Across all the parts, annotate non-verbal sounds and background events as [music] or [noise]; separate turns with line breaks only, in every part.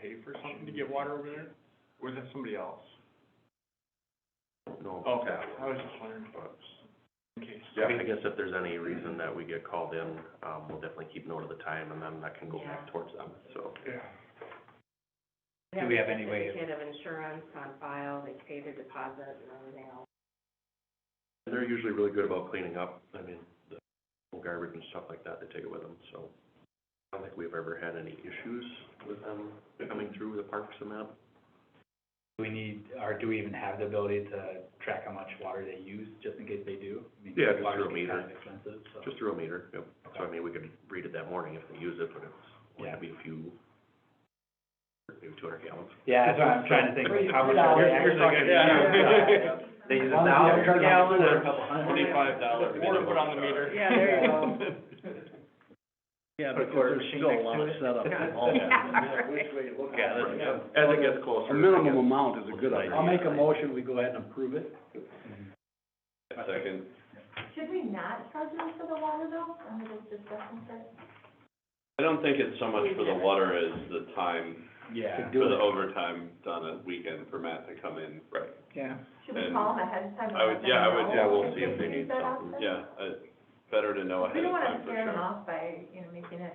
pay for something to get water over there? Or is that somebody else?
No.
Okay, I was just wondering, in case.
Yeah, I guess if there's any reason that we get called in, um, we'll definitely keep note of the time and then that can go back
Yeah.
towards them, so.
Yeah.
Do we have any way
They
of-
have insurance on file, they pay the deposit and everything else.
They're usually really good about cleaning up, I mean, the garbage and stuff like that, they take it with them, so. I don't think we've ever had any issues with them coming through the parks and that.
Do we need, or do we even have the ability to track how much water they use, just in case they do? I mean,
Yeah, just
water
through a
can be kind
meter.
of Expensive, so.
Just through a meter, yep. So I
Okay.
mean, we could read it that morning if they use it, but it's, only
Yeah.
be a few, maybe two hundred gallons.
Yeah, that's what I'm trying to think, like, how much are they
Here's- here's
actually
like a-
gonna use? [laughs] They use a thousand gallons or a couple hundred?
Twenty-five dollars. Or put on the meter.
Yeah, there you go.
Yeah,
Put a
because
quarter
there's
machine
still a
next
lot
to
of
it.
setup
Yeah.
involved.
Yeah, right.
Yeah, that's-
As it gets closer.
A
I
minimum
guess-
amount is a good idea.
I'll make a
motion, we go ahead and approve it.
Second.
Should we not charge them for the water though, under this discussion set?
I don't think it's so much for the water as the time,
Yeah.
for the overtime on a weekend for Matt to come in. Right.
Yeah.
Should we
And
call them ahead of time? and
I
let
would-
them
yeah, I would-
know
yeah, we'll see if they
do
need
that
something.
option?
Yeah, uh, better to know
We
ahead
don't
of
wanna
time for
scare them
sure.
off by, you know, making it,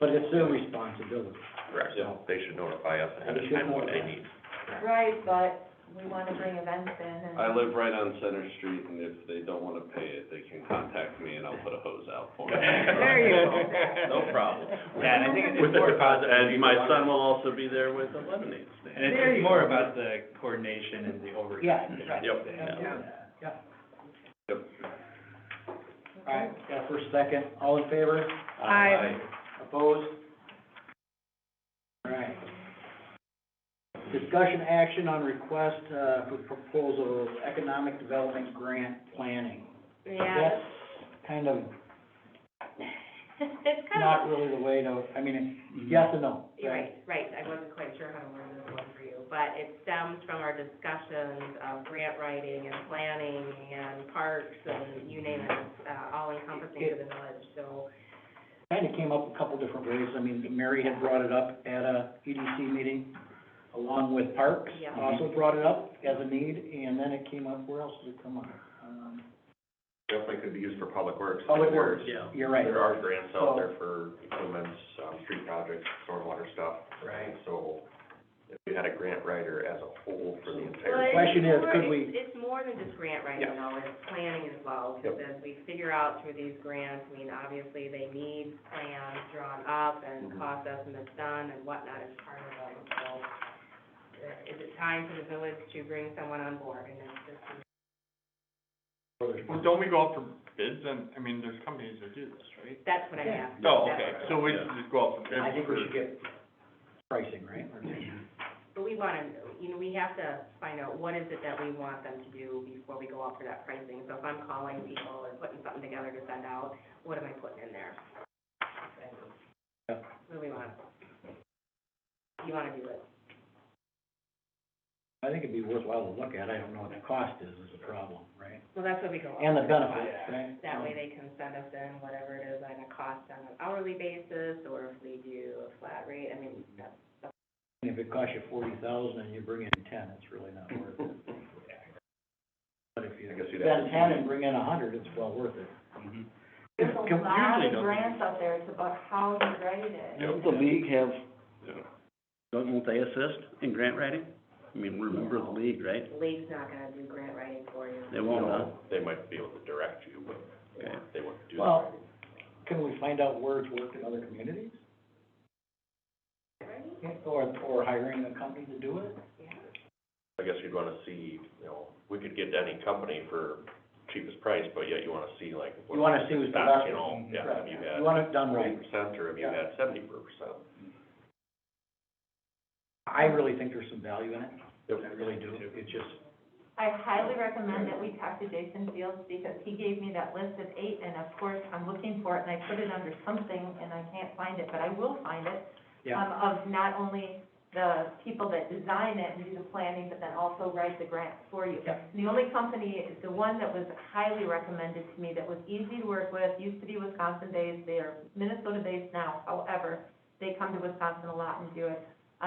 But it's their responsibility.
Correct,
Yeah.
they should notify us ahead
They
of
should
time what they
notify.
need.
right, but we wanna bring events in and.
I live right on Center Street and if they don't wanna pay it, they can contact me and I'll put a hose out
[laughs]
for them.
There you go.
[laughs]
No problem.
Yeah, and I think it's
With the
more about
deposit,
the
and my
people
son will also be there with a lemonade stand.
And it's
There
just
you
more about the coordination and the overtime.
Yeah, right.
Yep.
Yeah. Yeah.
Yep.
All right, got a first, second, all in favor,
Aye.
opposed? All right. Discussion action on request, uh, for proposal of economic development grant planning.
Yeah,
Kind of
[laughs] it's kind
not
of,
really the way to, I mean, yes and no,
[laughs] you're
right?
right, right, I wasn't quite sure how to word this one for you, but it stems from our discussions of grant writing and planning and parks and you name it, it's, uh, all encompassing to the village, so.
kind of came up a couple different ways. I mean, Mary had brought it up at a EDC meeting, along with Parks.
Yeah.
Also brought it up as a need, and then it came up, where else did it come up? Um,
Definitely could be used for public works.
Public
There's-
Works, you're right.
There are grants out there
So-
for improvements, um, street projects, stormwater stuff.
Right.
So if you had a grant writer as a whole for the entire.
Well, it's
question is,
more-
could we-
It's, it's more than just grant writing
Yeah.
though, it's planning as well, because as we figure out through these grants, I mean, obviously they need plans drawn up and
Mhm.
cost estimates done and whatnot as part of them, so. uh, Is it time for the village to bring someone on board and it's just,
[laughs] Well, don't we go out for bids and, I mean, there's companies that do this, right?
that's what I
Yeah.
asked.
Oh,
That's
okay,
what-
so we should just go out for bids.
I think we
for-
should get pricing, right? Or-
But we wanna, you know, we have to find out what is it that we want them to do before we go out for that pricing. So if I'm calling people or putting something together to send out, what am I putting in there?
Yeah.
What do we want? You wanna do it?
I think it'd be worthwhile to look at. I don't know what the cost is, is the problem, right?
Well, that's what we go out.
And the
for.
benefits, right?
That way they can send us in whatever it is on a cost on an hourly basis, or if we do a flat rate, I mean, that's
If it costs you forty thousand and you bring in ten, it's really not worth it.
[laughs]
But if you
I guess you'd have to Mm-hmm.
spend ten and bring in a hundred, it's well worth it.
There's
Usually
a lot
don't.
of grants out there, it's about how to write it.
Yep.
The league have,
Yeah.
doesn't they assist in grant writing? I mean, we're a member of the league, right?
the league's not gonna do grant writing for you.
They won't, huh?
No, They might be able to direct you, but they won't- they won't do that.
Well, can we find out where it's worked in other communities? Or, or hiring a company to do it?
I guess you'd wanna see, you know, we could get any company for cheapest price, but yet you wanna see like.
You wanna see who's the
what-
best.
You know, yeah, have you
You
had
want it done
forty
right.
percent or have you
Yeah.
had seventy percent?
I really think there's some value in it.
Yep.
I really do. It's just,
I highly recommend that we talk to Jason Fields because he gave me that list of eight and of course I'm looking for it and I put it under something and I can't find it, but I will find it.
yeah,
um, of not only the people that design it and do the planning, but then also write the grant for you.
Yep.
The only company, the one that was highly recommended to me, that was easy to work with, used to be Wisconsin-based, they are Minnesota-based now, however, they come to Wisconsin a lot and do it,